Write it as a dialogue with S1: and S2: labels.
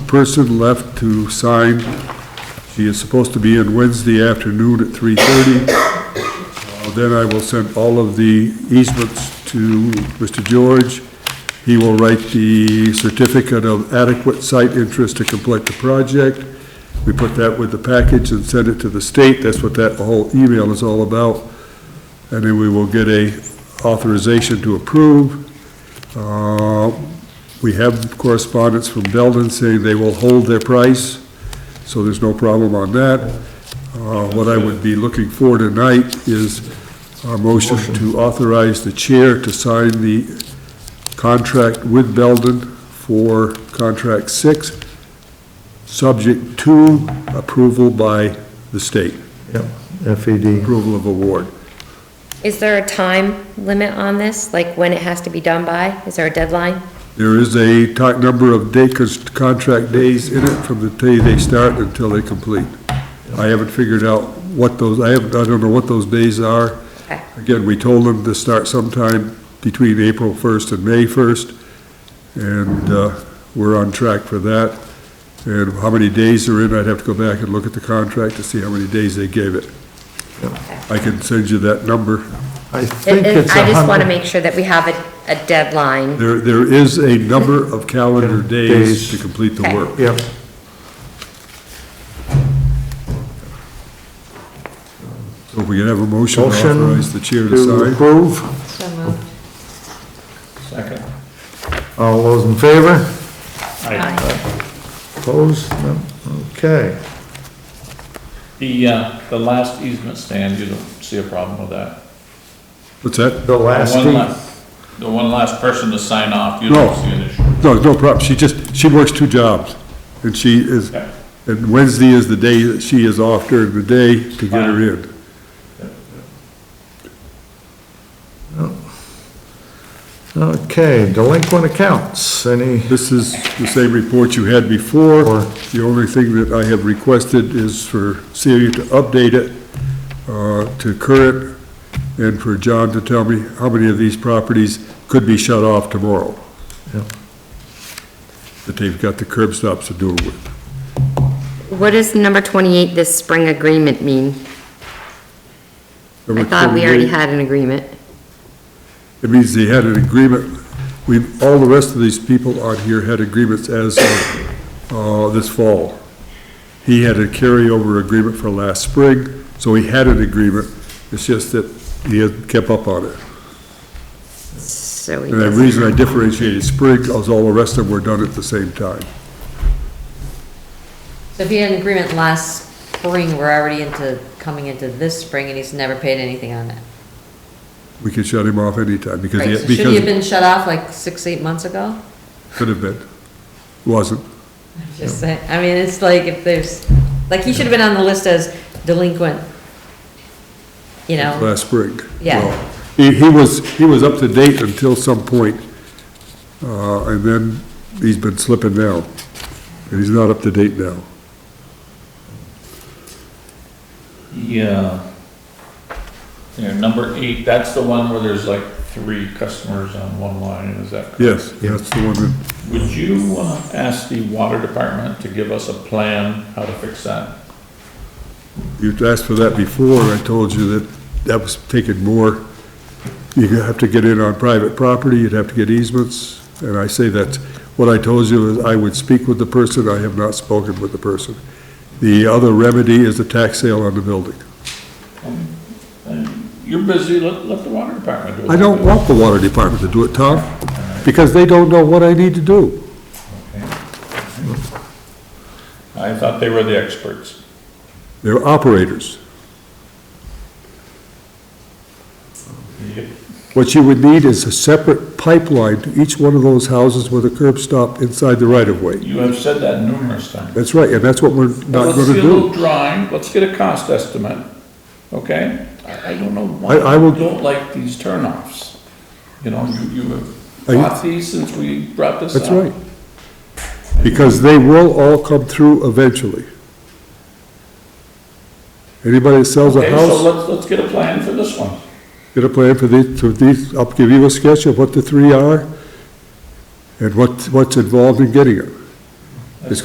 S1: person left to sign. She is supposed to be in Wednesday afternoon at 3:30. Uh, Then I will send all of the easements to Mr. George. He will write the certificate of adequate site interest to complete the project. We put that with the package and send it to the state. That's what that whole email is all about. And then we will get a authorization to approve. Uh, We have correspondence from Belden saying they will hold their price, so there's no problem on that. Uh, What I would be looking for tonight is our motion to authorize the chair to sign the contract with Belden for contract six, subject to approval by the state,
S2: Yep,
S3: E
S2: FED.
S1: approval of award.
S4: Is there a time limit on this, like when it has to be done by? Is there a deadline?
S1: There is a ti- number of day, cons- contract days in it from the day they start until they complete. I haven't figured out what those, I haven't, I don't know what those days are.
S4: Okay.
S1: Again, we told them to start sometime between April 1st and May 1st, and uh, we're on track for that. And how many days are in, I'd have to go back and look at the contract to see how many days they gave it. I can send you that number.
S2: I
S4: It-
S2: think
S4: it-
S2: it's
S4: I
S2: a
S4: just want
S2: hundred.
S4: to make sure that we have a, a deadline.
S1: There, there is a number of calendar days to complete the work.
S2: Yep,
S1: So if we can have a motion to
S2: Motion
S1: authorize the chair
S2: to
S1: to sign.
S2: approve.
S3: Second.
S2: All those in favor?
S4: Aye.
S2: Opposed? No? Okay.
S3: The, uh, the last easement stand, you don't see a problem with that?
S1: What's that?
S2: The last
S3: One
S2: fee.
S3: last- The one last person to sign off, you don't
S1: No.
S3: see an issue?
S1: No, no problem. She just, she works two jobs. And she is,
S3: Okay.
S1: and Wednesday is the day that she is off during the day to get her in.
S2: Okay, delinquent accounts, any,
S1: This is the same report you had before.
S2: Or-
S1: The only thing that I have requested is for Celia to update it uh, to current and for John to tell me how many of these properties could be shut off tomorrow.
S2: Yeah.
S1: That they've got the curb stops to do it with.
S4: What does number 28, this spring agreement mean? I
S1: Number
S4: thought we already
S1: 28.
S4: had an agreement.
S1: It means they had an agreement, we, all the rest of these people on here had agreements as of, uh, this fall. He had a carryover agreement for last spring, so he had an agreement, it's just that he had kept up on it.
S4: So we
S1: And the
S4: doesn't.
S1: reason I differentiated spring is all the rest of them were done at the same time.
S5: So if he had an agreement last spring, we're already into, coming into this spring, and he's never paid anything on it.
S1: We could shut him off anytime, because
S5: Right,
S1: he,
S5: so should he
S1: because,
S5: have been shut off like six, eight months ago?
S1: could have been, wasn't.
S5: Just saying, I mean, it's like if there's, like, he should have been on the list as delinquent, you know?
S1: last spring.
S5: Yeah.
S1: Well, He, he was, he was up to date until some point, uh, and then he's been slipping now, and he's not up to date now.
S3: Yeah. Yeah, number eight, that's the one where there's like three customers on one line, is that correct?
S1: Yes, that's the one that,
S3: Would you uh, ask the water department to give us a plan how to fix that?
S1: you asked for that before, and I told you that that was taking more. You have to get in on private property, you'd have to get easements, and I say that, what I told you is I would speak with the person, I have not spoken with the person. The other remedy is the tax sale on the building.
S3: You're busy, let, let the water department do it.
S1: I don't want the water department to do it, Tom, because they don't know what I need to do.
S3: I thought they were the experts.
S1: They're operators.
S3: Yep.
S1: What you would need is a separate pipeline to each one of those houses with a curb stop inside the right-of-way.
S3: You have said that numerous times.
S1: That's right, and that's what we're not
S3: Let's
S1: gonna
S3: get a little
S1: do.
S3: drawing, let's get a cost estimate, okay? I I don't know why
S1: I- I will-
S3: you don't like these turnoffs. You know, you, you have
S1: Are you-
S3: fought these since we brought this up.
S1: That's right. Because they will all come through eventually. Anybody that sells a
S3: Okay, so
S1: house,
S3: let's, let's get a plan for this one.
S1: get a plan for these, for these, I'll give you a sketch of what the three are and what, what's involved in getting them.